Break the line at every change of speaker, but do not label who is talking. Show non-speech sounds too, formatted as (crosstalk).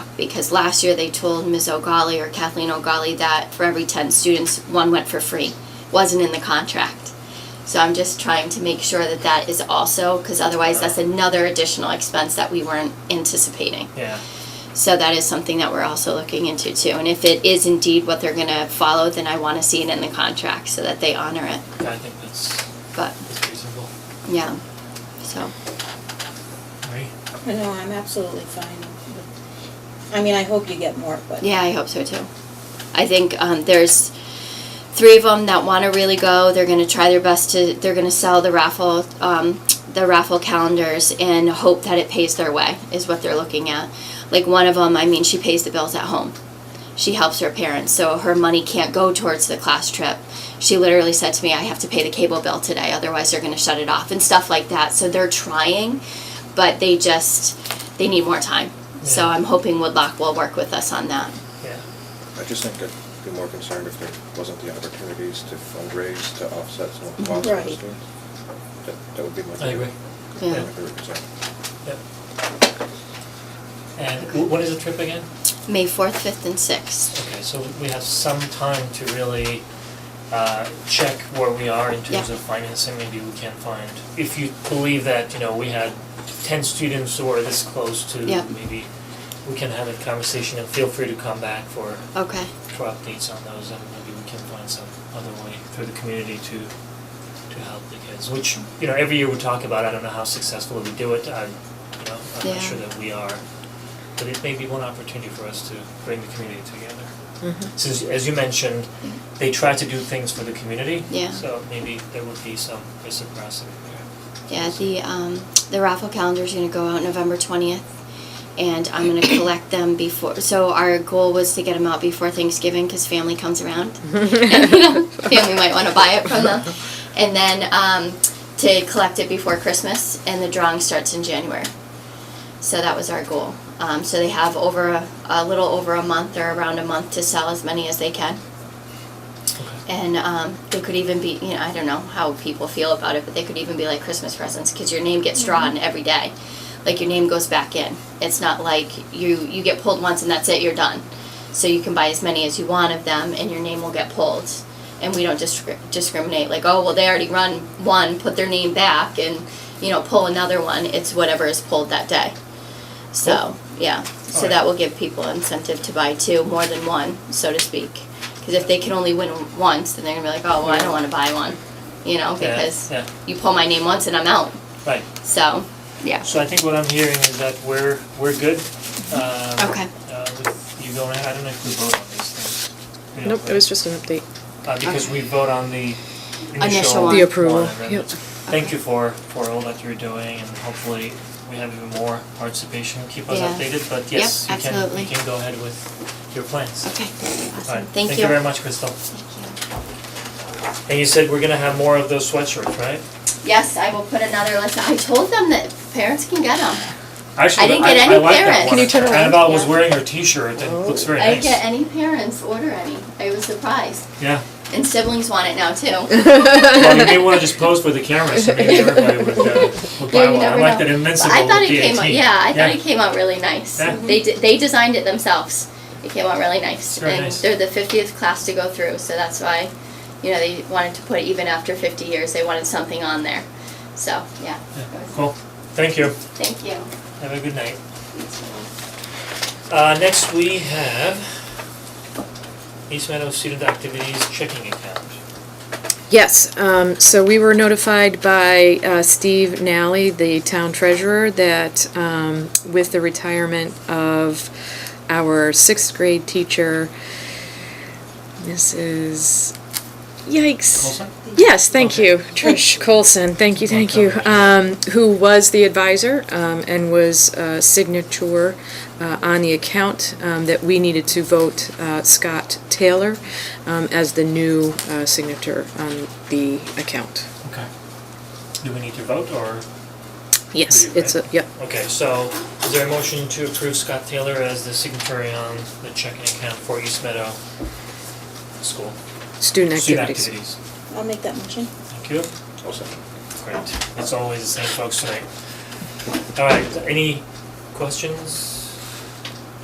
because last year they told Ms. O'Galley or Kathleen O'Galley that for every 10 students, one went for free. Wasn't in the contract. So I'm just trying to make sure that that is also, because otherwise that's another additional expense that we weren't anticipating.
Yeah.
So that is something that we're also looking into too. And if it is indeed what they're going to follow, then I want to see it in the contract so that they honor it.
I think that's,
But
that's reasonable.
yeah, so.
Right?
No, I'm absolutely fine. with- I mean, I hope you get more, but.
Yeah, I hope so too. I think um, there's three of them that want to really go. They're going to try their best to. They're going to sell the raffle, um, the raffle calendars, and hope that it pays their way. Is what they're looking at. Like one of them, I mean, she pays the bills at home. She helps her parents, so her money can't go towards the class trip. She literally said to me, "I have to pay the cable bill today, otherwise they're going to shut it off," and stuff like that. So they're trying, but they just they need more time. So
Yeah.
I'm hoping Woodlock will work with us on that.
Yeah.
I just think I'd be more concerned if there wasn't the opportunities to fundraise to offset some of the costs of
Right.
the students. That, that would be my.
I agree.
Yeah.
my favorite concern.
Yep. And wh- what is the trip again?
May 4th, 5th, and 6th.
Okay, so we have some time to really uh, check where we are in terms
Yeah.
of financing, maybe we can find. If you believe that, you know, we had ten students who are this close to,
Yeah.
maybe we can have a conversation and feel free to come back for,
Okay.
for updates on those and maybe we can find some other way through the community to, to help the kids, which, you know, every year we talk about, I don't know how successful we do it, I, you know, I'm
Yeah.
not sure that we are. But it may be one opportunity for us to bring the community together
Mm-hmm.
since as you mentioned, they try to do things for the community.
Yeah.
So maybe there would be some reciprocity there.
Yeah, the, um, the raffle calendar is going to go out November 20th, and I'm going to collect them before. So, our goal was to get them out before Thanksgiving because family comes around. and, you know, family might want to buy it from them. And then um, to collect it before Christmas, and the drawing starts in January. So, that was our goal. Um, so, they have over a, a little over a month or around a month to sell as many as they can. And um, they could even be, you know, I don't know how people feel about it, but they could even be like Christmas presents because your name gets drawn every day. Like your name goes back in. It's not like you you get pulled once and that's it, you're done. So you can buy as many as you want of them, and your name will get pulled. And we don't discri- discriminate like, oh well, they already run one, put their name back, and you know, pull another one. It's whatever is pulled that day. So yeah, so
Alright.
that will give people incentive to buy two, more than one, so to speak. Because if they can only win once, then they're gonna be like, oh, well, I don't want to buy one, you know,
Yeah,
because
yeah.
you pull my name once and I'm out.
Right.
So, yeah.
So I think what I'm hearing is that we're we're good.
Mm-hmm.
Um,
Okay.
Uh, with you going, I don't know if we vote on these things. We don't
Nope, it
vote.
was just an update.
uh, because we vote on the initial,
Initial one.
The approval,
one, and then
yep.
it's- Thank you for for all that you're doing, and hopefully we have even more participation. Keep us
Yeah.
updated, but yes,
Yep,
you can you
absolutely.
can go ahead with your plans.
Okay.
All right.
Awesome.
Thank
Thank
you very
you.
much, Crystal. And you said we're gonna have more of those sweatshirts, right?
Yes, I will put another list. I told them that parents can get them.
Actually,
I didn't get any parents.
Can you turn
I
around?
about was
Yeah. Oh.
wearing your T-shirt. It looks very
I
nice.
get any parents order any. I was surprised. (laughs)
Yeah.
And siblings want it now
(laughs)
too.
Well, you may want to just pose for the camera, so maybe everybody would,
(laughs)
uh, would
Yeah,
buy
you
one. I
never know.
like that
But
invincible
I thought it came
DAT.
out, yeah, I thought it came out really nice.
Yeah.
They di- they designed it themselves. It came out really nice.
It's very
and
nice.
they're the 50th class to go through, so that's why you know they wanted to put it even after 50 years. They wanted something on there. So, yeah. it was-
Cool. Thank you.
Thank you.
Have a good night. Uh, next we have East Meadow Student Activities Checking Account.
Yes, um, so we were notified by, uh, Steve Nally, the town treasurer, that, um, with the retirement of our sixth grade teacher, Mrs. Yikes.
Coulson?
Yes, thank
Okay.
you, Trish Colson, thank you, thank you,
Welcome.
um, who was the advisor, um, and was, uh, signature, uh, on the account, um, that we needed to vote, uh, Scott Taylor, um, as the new, uh, signature on the account.
Okay. Do we need to vote or?
Yes,
We do,
it's a, yep,
Okay, so is there a motion to approve Scott Taylor as the signatory on the checking account for East Meadow School?
student
Student activities.
activities.
I'll make that motion.
Thank you.
Also,
Great. It's always the same folks tonight. All right, any questions?